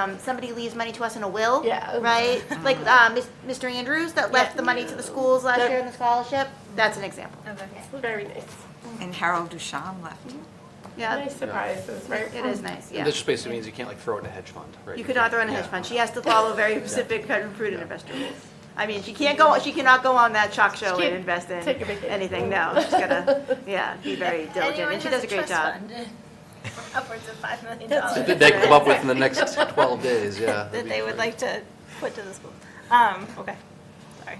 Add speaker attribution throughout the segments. Speaker 1: um, somebody leaves money to us in a will.
Speaker 2: Yeah.
Speaker 1: Right? Like, uh, Mis- Mr. Andrews that left the money to the schools last
Speaker 2: That-
Speaker 1: year in the scholarship, that's an example.
Speaker 2: Very nice.
Speaker 3: And Harold Duchamp left.
Speaker 1: Yeah,
Speaker 2: Nice surprises, right?
Speaker 1: it is nice, yeah.
Speaker 4: That just basically means you can't like throw it in a hedge fund, right?
Speaker 1: You could not throw in a hedge fund, she has to follow very specific federal prudent investor rules. I mean, she can't go, she cannot go on that chalk show and
Speaker 2: can't
Speaker 1: invest in
Speaker 2: take a vacation.
Speaker 1: anything, no, she's gotta, yeah, be very diligent,
Speaker 5: Anyone
Speaker 1: and she
Speaker 5: has
Speaker 1: does a great
Speaker 5: trust
Speaker 1: job.
Speaker 5: fund, Upwards of $5 million that
Speaker 4: That they come up with in the next 12 days, yeah.
Speaker 5: they would like to put to the school. Um, okay, sorry.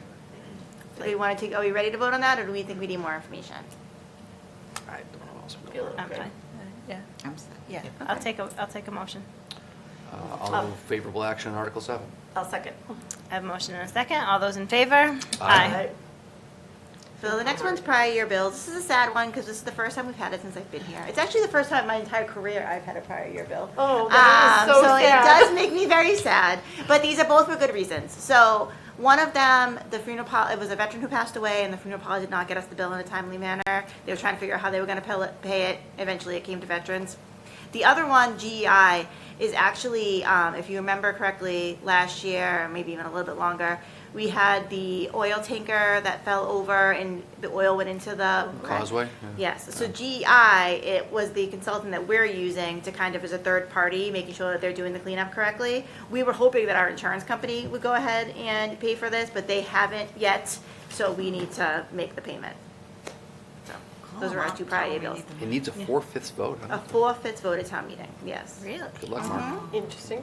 Speaker 1: Do we wanna take, are we ready to vote on that, or do we think we need more information?
Speaker 4: I don't know what else I'm
Speaker 2: Feel
Speaker 4: doing.
Speaker 2: it.
Speaker 5: I'm fine. Yeah,
Speaker 3: I'm sorry.
Speaker 5: yeah, I'll take a, I'll take a motion.
Speaker 1: Oh.
Speaker 4: Uh, I'll move favorable action on Article 7.
Speaker 2: I'll second.
Speaker 5: I have a motion and a second. All those in favor?
Speaker 4: Aye.
Speaker 1: So the next one's prior year bills. This is a sad one because this is the first time we've had it since I've been here. It's actually the first time in my entire career I've had a prior year bill.
Speaker 2: Oh, that is
Speaker 1: Um,
Speaker 2: so sad.
Speaker 1: it does make me very sad. But these are both for good reasons. So one of them, the funeral pol it was a veteran who passed away, and the funeral policy did not get us the bill in a timely manner. They were trying to figure out how they were going to pay it. Eventually, it came to veterans. The other one, GEI, is actually, um, if you remember correctly, last year, or maybe even a little bit longer, we had the oil tanker that fell over and the oil went into the
Speaker 4: Causeway? Yeah.
Speaker 1: Yes, so GEI, it was the consultant that we're using to kind of as a third party, making sure that they're doing the cleanup correctly. We were hoping that our insurance company would go ahead and pay for this, but they haven't yet, so we need to make the payment. So, Those are our two priority bills.
Speaker 4: It needs a four-fifths vote. huh?
Speaker 1: A four-fifths vote at town meeting, yes. Mm-hmm.
Speaker 5: Really?
Speaker 4: Good luck,
Speaker 1: Uh-huh.
Speaker 4: Mark.
Speaker 2: Interesting.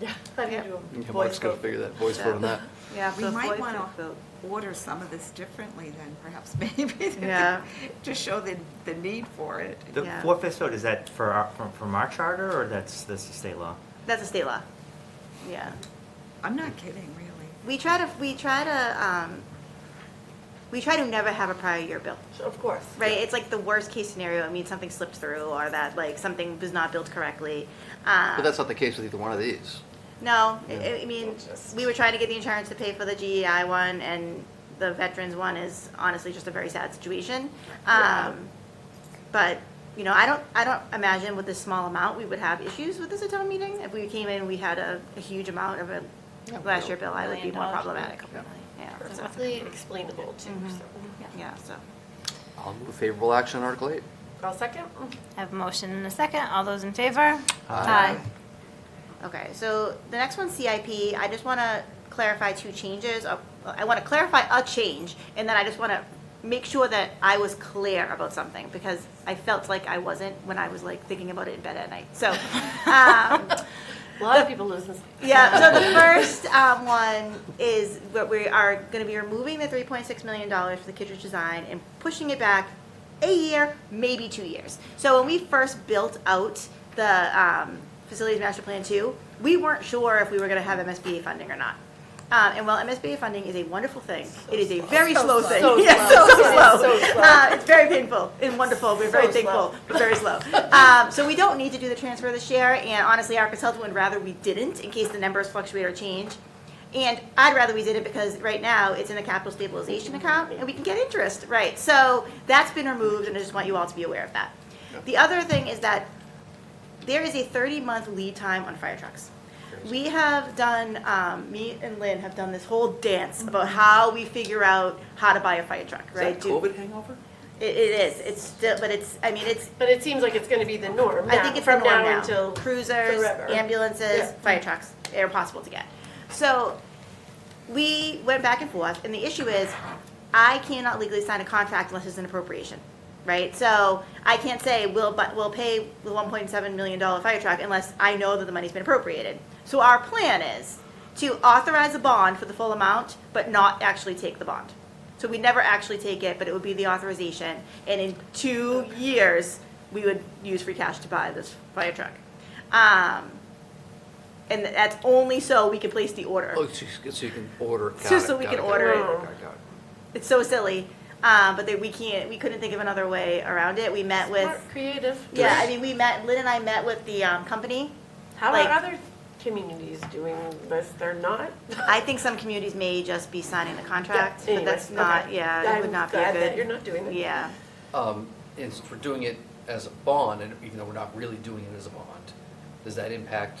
Speaker 2: Yeah. How do you do a
Speaker 4: Yeah,
Speaker 2: voice
Speaker 4: Mark's got to
Speaker 2: vote?
Speaker 4: figure that voice vote on that.
Speaker 1: Yeah,
Speaker 3: We
Speaker 1: so
Speaker 3: might want
Speaker 1: 4/5th
Speaker 3: to
Speaker 1: vote.
Speaker 3: order some of this differently then, perhaps, maybe.
Speaker 1: Yeah.
Speaker 3: To show the, the need for it.
Speaker 6: The
Speaker 1: Yeah.
Speaker 6: four-fifths vote, is that for our, from, from our charter, or that's, that's the state law?
Speaker 1: That's a state law. Yeah.
Speaker 3: I'm not kidding, really.
Speaker 1: We try to, we try to, um, we try to never have a prior year bill.
Speaker 2: Of course.
Speaker 1: Right, it's like the worst case scenario. It means something slipped through or that like something was not built correctly. Um,
Speaker 4: But that's not the case with either one of these.
Speaker 1: no, I, I mean, we were trying to get the insurance to pay for the GEI one and the veterans one is honestly just a very sad situation.
Speaker 2: Yeah.
Speaker 1: Um, but, you know, I don't, I don't imagine with this small amount, we would have issues with this at town meeting. If we came in, we had a, a huge amount of a last year bill, I would be more problematic. Yeah, so,
Speaker 2: Perfectly explainable too, so.
Speaker 1: Mm-hmm. yeah, so.
Speaker 4: I'll move favorable action on Article 8.
Speaker 2: I'll second.
Speaker 5: I have a motion and a second. All those in favor?
Speaker 6: Aye.
Speaker 1: Okay, so the next one's CIP. I just want to clarify two changes. Uh, I want to clarify a change, and then I just want to make sure that I was clear about something because I felt like I wasn't when I was like thinking about it in bed at night. So, um,
Speaker 2: A lot of people lose this.
Speaker 1: yeah, so the first um, one is what we are going to be removing the $3.6 million for the Kittredge design and pushing it back a year, maybe two years. So when we first built out the um, Facilities Master Plan 2, we weren't sure if we were going to have MSBA funding or not. Um, and while MSBA funding is a wonderful thing, it is a very slow, thing.
Speaker 2: So
Speaker 1: Yes, so
Speaker 2: slow. It is
Speaker 1: slow.
Speaker 2: so slow.
Speaker 1: Uh, it's very painful and wonderful. We're very
Speaker 2: So slow.
Speaker 1: thankful but very slow. Um, so we don't need to do the transfer this year, and honestly, our consultant would rather we didn't in case the numbers fluctuate or change. And I'd rather we did it because right now it's in the capital stabilization account and we can get interest, right? So that's been removed, and I just want you all to be aware of that. The other thing is that there is a 30-month lead time on fire trucks. We have done, um, me and Lynn have done this whole dance about how we figure out how to buy a fire truck, right? Do-
Speaker 4: hangover?
Speaker 1: It, it is, it's still, but it's, I mean, it's,
Speaker 2: But it seems like it's gonna be the norm
Speaker 1: I
Speaker 2: now,
Speaker 1: think it's
Speaker 2: from
Speaker 1: the norm
Speaker 2: now
Speaker 1: now.
Speaker 2: until
Speaker 1: Cruisers,
Speaker 2: forever.
Speaker 1: ambulances,
Speaker 2: Yeah.
Speaker 1: fire trucks, they're possible to get. So we went back and forth, and the issue is, I cannot legally sign a contract unless it's an appropriation, right? So I can't say, we'll, but, we'll pay the one point seven million dollar fire truck unless I know that the money's been appropriated. So our plan is to authorize a bond for the full amount, but not actually take the bond. So we never actually take it, but it would be the authorization, and in two years, we would use free cash to buy this fire truck. Um, and that's only so we can place the order.
Speaker 4: Oh, so you- so you can order. it. Got
Speaker 1: So- so
Speaker 4: it,
Speaker 1: we
Speaker 4: got
Speaker 1: can
Speaker 4: got
Speaker 1: order it.
Speaker 4: got got it.
Speaker 1: It's so silly, uh, but they, we can't. We couldn't think of another way around it. We met with,
Speaker 2: Smart, Creative.
Speaker 1: yeah. I mean, we met. Lynn and I met with the um, company.
Speaker 2: How
Speaker 1: like-
Speaker 2: are other communities doing this? They're not?
Speaker 1: I think some communities may just be signing the contract,
Speaker 2: Yeah,
Speaker 1: but that's
Speaker 2: anyway,
Speaker 1: not.
Speaker 2: okay.
Speaker 1: Yeah, it would
Speaker 2: I'm
Speaker 1: not be a
Speaker 2: glad
Speaker 1: good.
Speaker 2: that you're not doing that.
Speaker 1: Yeah,
Speaker 7: Um, And since we're doing it as a bond, and even though we're not really doing it as a bond, does that impact